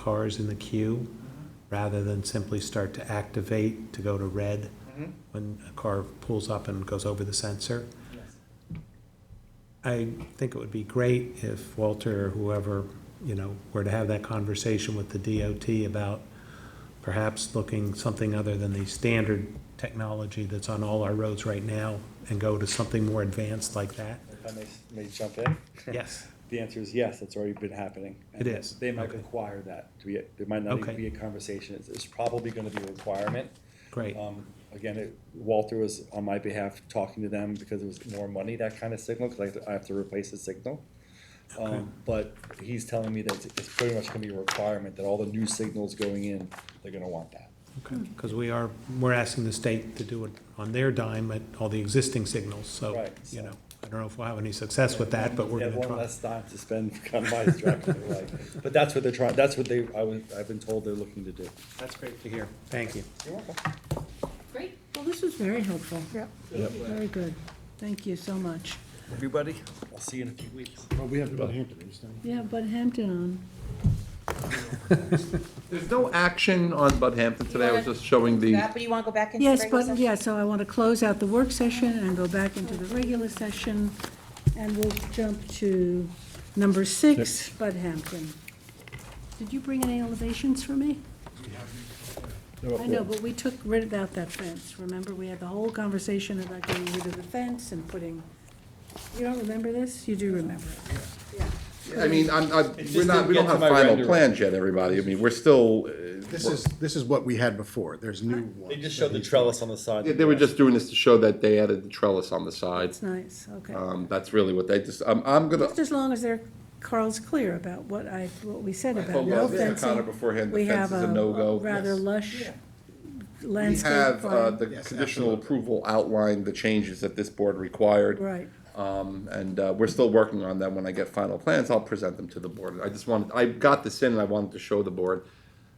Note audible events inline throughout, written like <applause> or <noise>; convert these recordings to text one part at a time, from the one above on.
cars in the queue, rather than simply start to activate to go to red Mhm. when a car pulls up and goes over the sensor. Yes. I think it would be great if Walter or whoever, you know, were to have that conversation with the DOT about perhaps looking something other than the standard technology that's on all our roads right now and go to something more advanced like that. If I may, may jump in? Yes. The answer is yes, it's already been happening. It is, They might okay. require that, to be, there might not Okay. even be a conversation, it's, it's probably gonna be a requirement. Great. Um, again, it- Walter was on my behalf talking to them because it was more money, that kind of signal, because I have to, I have to replace the signal. Um, but he's telling me that it's- it's pretty much gonna be a requirement, that all the new signals going in, they're gonna want that. Because we are, we're asking the state to do it on their dime at all the existing signals, so, Right, you so- know, I don't know if we'll have any success with that, but we're They have gonna one try. less time to spend <laughs> on my distraction, like, but that's what they're trying, that's what they, I was, I've been told they're looking to do. That's great to hear. Thank you. You're welcome. Great. Well, this was very helpful. Yep. Very good. Thank you so much. Everybody, I'll see you in a few weeks. Well, we have Bud Hampton, is We have Bud Hampton on. There's no action on Bud Hampton today, I was just showing the, That, but you want to go back into Yes, regular but, session? yeah, so I want to close out the work session and go back into the regular session, and we'll jump to number six, Bud Hampton. Did you bring any elevations for me? I know, but we took rid of that fence, remember? We had the whole conversation about getting rid of the fence and putting, you don't remember this? You do remember it. I mean, I'm, I, we're just not, we didn't get don't to have my final rendering. plans yet, everybody, I mean, we're still, uh, This is, this is what we had before, there's new ones. They just showed the trellis on the side. they were just doing this to show that they added the trellis on the It's sides. nice, okay. Um, that's really what they just, I'm, I'm gonna, Just as long as they're, Carl's clear about what I, what we said about told no Leslie and Connor fencing. beforehand, the We fence have is a a no-go. rather Yes. lush we landscape have, uh, plan. the Yes, conditional absolutely. approval outlined, the changes that this board required. Right, Um, and, uh, we're still working on them. When I get final plans, I'll present them to the board. I just wanted, I got this in and I wanted to show the board,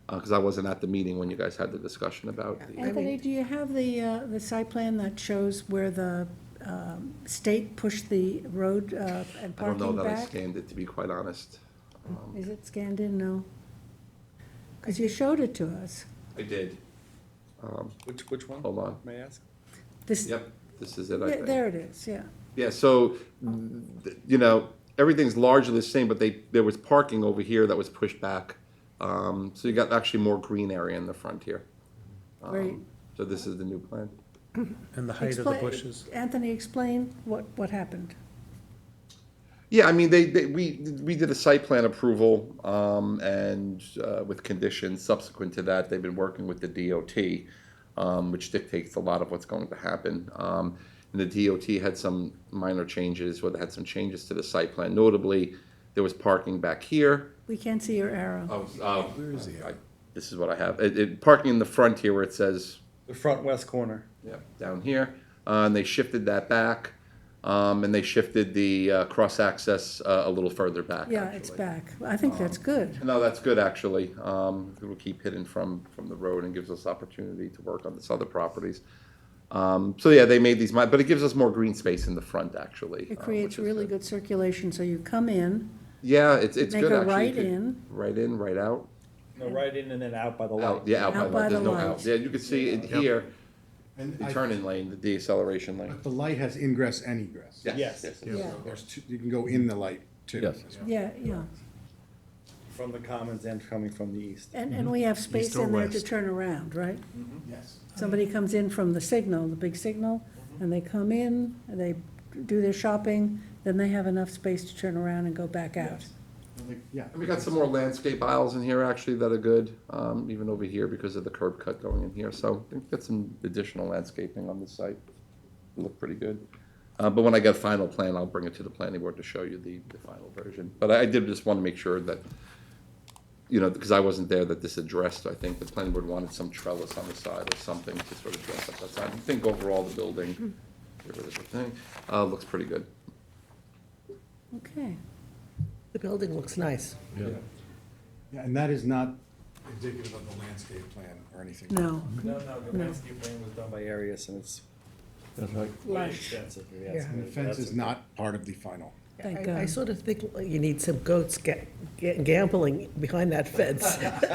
uh, cause I wasn't at the meeting when you guys had the discussion about the. Anthony, do you have the, uh, the site plan that shows where the um, state pushed the road uh, and I don't know parking that I back? scanned it, to be quite honest. Is it scanned in? No. Because you showed it to us. I did. Which, which one, Hold on. may I ask? This, Yep, this is it, I there think. there it is, yeah. Yeah, so, th- you know, everything's largely the same, but they, there was parking over here that was pushed back. Um, so you got actually more green area in the front here. Um, Great. So this is the new plan. And the height of the Explain- bushes. Anthony, explain what, what happened. Yeah, I mean, they, they, we, we did a site plan approval, um, and, uh, with conditions subsequent to that, they've been working with the DOT, um, which dictates a lot of what's going to happen. Um, and the DOT had some minor changes, or they had some changes to the site plan, notably, there was parking back here. We can't see your arrow. Oh, Where is the This is what I have, it, it, parking in the front here where it says The front west corner. yeah, down here, uh, and they shifted that back, um, and they shifted the uh, cross access uh, a little further back. Yeah, it's actually. Um, uh, back. I think that's good. No, that's good actually. Um, it'll keep hidden from from the road and gives us opportunity to work on this other properties. Um, so yeah, they made these, mi- but it gives us more green space in the front actually. It uh, creates which is really good circulation, so you come in, Yeah, it's it's Make good a actually. You right could- in. Right in, right out. No, right in and then out by the Out, light. yeah, out by Out by the, there's the no light. out. Yeah, you can see it here, And the I- turn-in lane, the deceleration lane. The light has ingress and egress. Yes. yeah, There's two, you can go in the light too. Yes. yeah, yeah. From the commons and coming from the east. And, Mm-hmm. and we have space or in there to west? turn around, right? Yes. Somebody comes in from the signal, the big signal, Mm-hmm. and they come in, and they do their shopping, then they have enough space to turn around and go back out. Yeah. And we got some more landscape aisles in here actually that are good, um, even over here because of the curb cut going in here. So we've got some additional landscaping on this site. Look pretty good. Uh, but when I get a final plan, I'll bring it to the planning board to show you the, the final version. But I I did just want to make sure that, you know, because I wasn't there, that this addressed, I think the planning board wanted some trellis on the side or something to sort of dress up that side. I think overall the building, get rid of the thing, uh, looks pretty good. Okay. The building looks nice. Yeah, And that is not indicative of the landscape plan or anything. No, No, no, the landscape plan was done by Arius and it's lush. extensive. Yeah. And the fence is not part of the final. Thank I- I God. <laughs> sort of think you need some goats ga- ga- gambling behind that fence.